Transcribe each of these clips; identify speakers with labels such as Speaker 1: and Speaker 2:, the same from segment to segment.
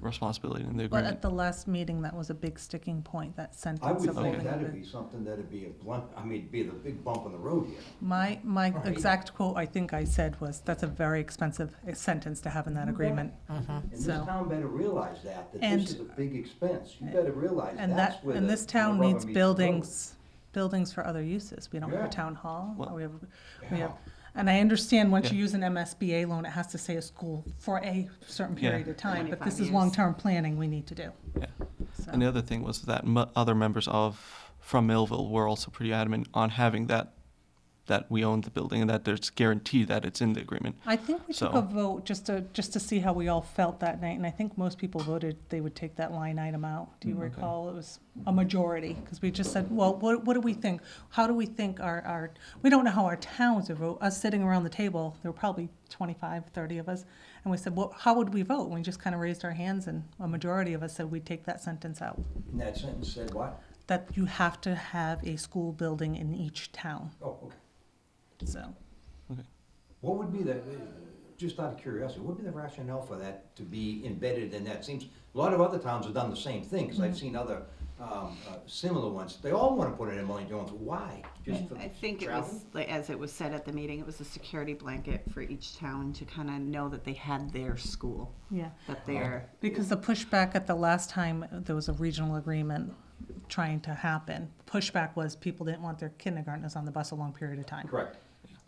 Speaker 1: responsibility in the
Speaker 2: But
Speaker 1: agreement.
Speaker 2: at the last meeting, that was a big sticking point, that
Speaker 3: I
Speaker 2: sentence
Speaker 3: would
Speaker 2: of
Speaker 3: think
Speaker 2: holding
Speaker 3: that'd
Speaker 2: it.
Speaker 3: be something that'd be a blunt, I mean, be the big bump in the road here.
Speaker 2: My, my
Speaker 3: Right.
Speaker 2: exact quote, I think I said was, that's a very expensive eh, sentence to have in that agreement.
Speaker 3: And this
Speaker 2: So-
Speaker 3: town better realize that, that
Speaker 2: And- eh,
Speaker 3: this is a big expense. You better realize
Speaker 2: And
Speaker 3: that's
Speaker 2: that,
Speaker 3: where the.
Speaker 2: and this
Speaker 3: the
Speaker 2: town
Speaker 3: rubber
Speaker 2: needs
Speaker 3: meets the road.
Speaker 2: buildings, buildings for other uses. We don't have
Speaker 3: Yeah.
Speaker 2: a town hall,
Speaker 1: Well-
Speaker 2: we have, we have,
Speaker 3: Yeah.
Speaker 2: and I understand once you
Speaker 1: Yeah.
Speaker 2: use an MSBA loan, it has to say a school for a certain
Speaker 1: Yeah.
Speaker 2: period of time, but
Speaker 4: 25
Speaker 2: this is
Speaker 4: years.
Speaker 2: long-term planning we need to do.
Speaker 1: Yeah.
Speaker 2: So-
Speaker 1: And the other thing was that m- other members of from Millville were also pretty adamant on having that that we own the building and that there's guaranteed that it's in the agreement.
Speaker 2: I think we took a
Speaker 1: So-
Speaker 2: vote just to, just to see how we all felt that night, and I think most people voted they would take that line item out. Do you
Speaker 1: Mm, okay.
Speaker 2: recall? It was a majority, because we just said, well, what, what do we think? How do we think our, our, we don't know how our towns would vote. Us sitting around the table, there were probably 25, 30 of us, and we said, well, how would we vote? And we just kind of raised our hands, and a majority of us said we'd take that sentence out,
Speaker 3: And that sentence said what?
Speaker 2: that you have to have a school building in each town,
Speaker 3: Oh, okay.
Speaker 2: so.
Speaker 3: What would be the, just out of curiosity, what would be the rationale for that to be embedded in that? Seems, a lot of other towns have done the same thing, because
Speaker 2: Mm-hmm.
Speaker 3: I've seen other um, uh, similar ones. They all want to put it in Million Jones. Why? Just for
Speaker 4: Mm, I think it
Speaker 3: travel?
Speaker 4: was, like, as it was said at the meeting, it was a security blanket for each town to kind of know that they had their school,
Speaker 2: Yeah.
Speaker 4: that their,
Speaker 2: Because the pushback at the last time there was a regional agreement trying to happen, pushback was people didn't want their kindergartners on the bus a long period of time.
Speaker 3: Correct,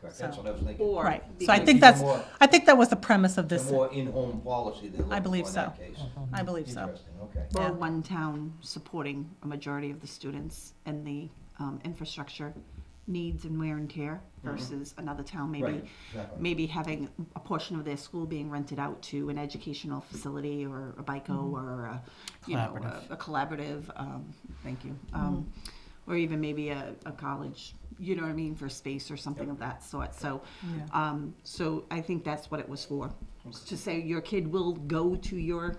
Speaker 3: correct. That's
Speaker 2: So-
Speaker 3: what I was thinking.
Speaker 4: or.
Speaker 2: Right, so I
Speaker 4: because-
Speaker 2: think
Speaker 3: Because-
Speaker 2: that's, I think that was the premise of
Speaker 3: The
Speaker 2: this,
Speaker 3: more in-home policy they're
Speaker 2: I
Speaker 3: looking for
Speaker 2: believe
Speaker 3: in
Speaker 2: so.
Speaker 3: that case.
Speaker 2: I believe so.
Speaker 3: Interesting, okay.
Speaker 2: Yeah.
Speaker 4: Or one town supporting a majority of the students and the um, infrastructure needs and wear and tear
Speaker 2: Uh-huh.
Speaker 4: versus another town
Speaker 3: Right,
Speaker 4: maybe,
Speaker 3: exactly.
Speaker 4: maybe having a portion of their school being rented out to an educational facility or a BICO or a, you know, a- a collaborative, um, thank you. um, Or even maybe a, a college, you know what I mean, for space or something
Speaker 3: Yep.
Speaker 4: of that sort, so.
Speaker 2: Yeah.
Speaker 4: Um, so I think that's what it was for, to say your kid will go to your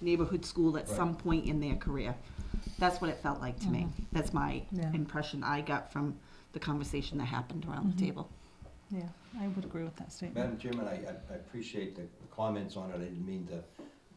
Speaker 4: neighborhood school at
Speaker 3: Right.
Speaker 4: some point in their career. That's what it felt like to me. That's my
Speaker 2: Yeah.
Speaker 4: impression I got from the conversation that happened around the table.
Speaker 2: yeah, I would agree with that statement.
Speaker 3: Madam Chairman, I, I- I appreciate the the comments on it, I didn't mean to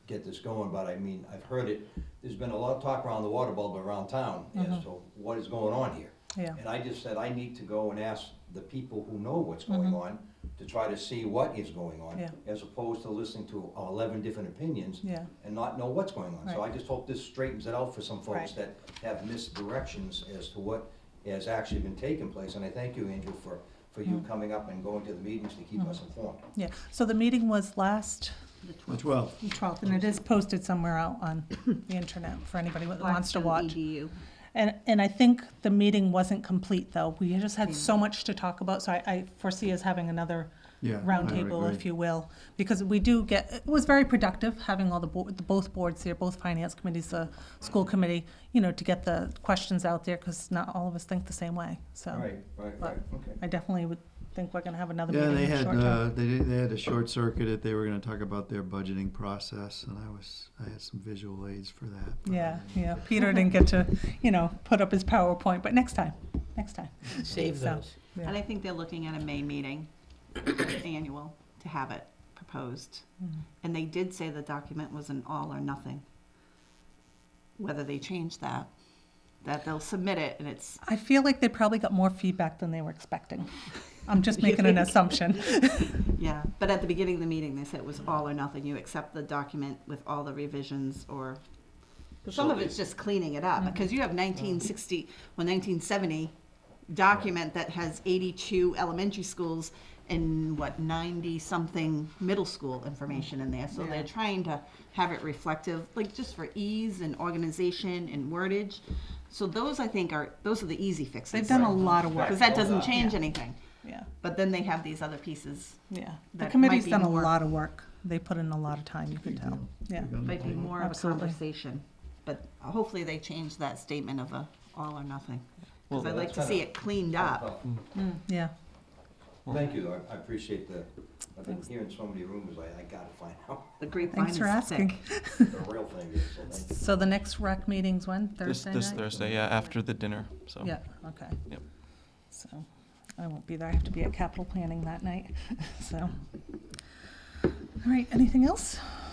Speaker 3: get this going, but I mean, I've heard it, there's been a lot of talk around the water bubble around town as to what is going on here.
Speaker 2: Yeah.
Speaker 3: And I just said, I need to go and ask the people who know what's going on to try to see what is going on.
Speaker 2: Mm-hmm. Yeah.
Speaker 3: As opposed to listening to uh, eleven different opinions.
Speaker 2: Yeah.
Speaker 3: And not know what's going on. So I
Speaker 2: Right.
Speaker 3: just hope this straightens it out for some
Speaker 2: Right.
Speaker 3: folks that have misdirections as to what has actually been taking place. And I thank you, Andrew, for, for
Speaker 2: Mm-hmm.
Speaker 3: you coming up and going to the meetings to keep us informed.
Speaker 2: Yeah, so the meeting was last
Speaker 5: The twelve.
Speaker 2: twelfth, and it is posted somewhere out on the internet for anybody that wants to
Speaker 4: Blackstone
Speaker 2: watch.
Speaker 4: EDU.
Speaker 2: And, and I think the meeting wasn't complete, though. We just had so much to talk about, so I, I foresee us having another
Speaker 5: Yeah, I would
Speaker 2: roundtable, if
Speaker 5: agree.
Speaker 2: you will. Because we do get, it was very productive, having all the, bo- the both boards here, both finance committees, the school committee, you know, to get the questions out there, because not all of us think the same way, so.
Speaker 3: Right, right, right, okay.
Speaker 2: I definitely would think we're gonna have another
Speaker 5: Yeah,
Speaker 2: meeting
Speaker 5: they
Speaker 2: in the
Speaker 5: had,
Speaker 2: short term.
Speaker 5: uh, they, did- they had a short circuit it. They were gonna talk about their budgeting process and I was, I had some visual aids for that. but I
Speaker 2: Yeah,
Speaker 5: didn't.
Speaker 2: yeah. Peter didn't get to, you know, put up his PowerPoint, but next time, next time.
Speaker 6: Save
Speaker 2: So-
Speaker 6: those.
Speaker 4: And I think they're looking at a May meeting, annual, to have it proposed.
Speaker 2: Hmm.
Speaker 4: And they did say the document was an all or nothing. Whether they change that, that they'll submit it and it's
Speaker 2: I feel like they probably got more feedback than they were expecting. I'm just making an assumption.
Speaker 4: Yeah, but at the beginning of the meeting, they said it was all or nothing. You accept the document with all the revisions or, some of it's just cleaning it
Speaker 2: Mm-hmm.
Speaker 4: up, because you have nineteen sixty, well, nineteen seventy document that has eighty-two elementary schools and what, ninety-something middle school information in there. So
Speaker 2: Yeah.
Speaker 4: they're trying to have it reflective, like just for ease and organization and wordage. So those, I think, are, those are the easy fixes.
Speaker 2: They've done a lot of work.
Speaker 4: Because that
Speaker 3: Well
Speaker 4: doesn't
Speaker 3: done.
Speaker 4: change
Speaker 2: Yeah.
Speaker 4: anything.
Speaker 2: Yeah,
Speaker 4: But then they have these other pieces
Speaker 2: yeah. The
Speaker 4: That
Speaker 2: committee's
Speaker 4: might be
Speaker 2: done a
Speaker 4: more-
Speaker 2: lot of work. They put in a lot of time, you can tell. Yeah.
Speaker 5: Big on the
Speaker 4: Might be
Speaker 5: table.
Speaker 4: more of a
Speaker 2: Absolutely.
Speaker 4: conversation, but hopefully they change that statement of a all or nothing.
Speaker 1: Well-
Speaker 4: Because I'd like to see it cleaned up.
Speaker 2: Yeah,
Speaker 3: Thank you, though, I- I appreciate the, I've been hearing so many rumors, I, I gotta find out
Speaker 4: The grapevine
Speaker 2: thanks
Speaker 4: is
Speaker 2: for asking.
Speaker 4: thick.
Speaker 3: the real thing is, so thank you.
Speaker 2: So the next rec meeting's when?
Speaker 1: This,
Speaker 2: Thursday
Speaker 1: this
Speaker 2: night?
Speaker 1: Thursday, yeah, after the dinner, so.
Speaker 2: Yeah, okay.
Speaker 1: Yep.
Speaker 2: So I won't be there. I have to be at capital planning that night, so. All right, anything else?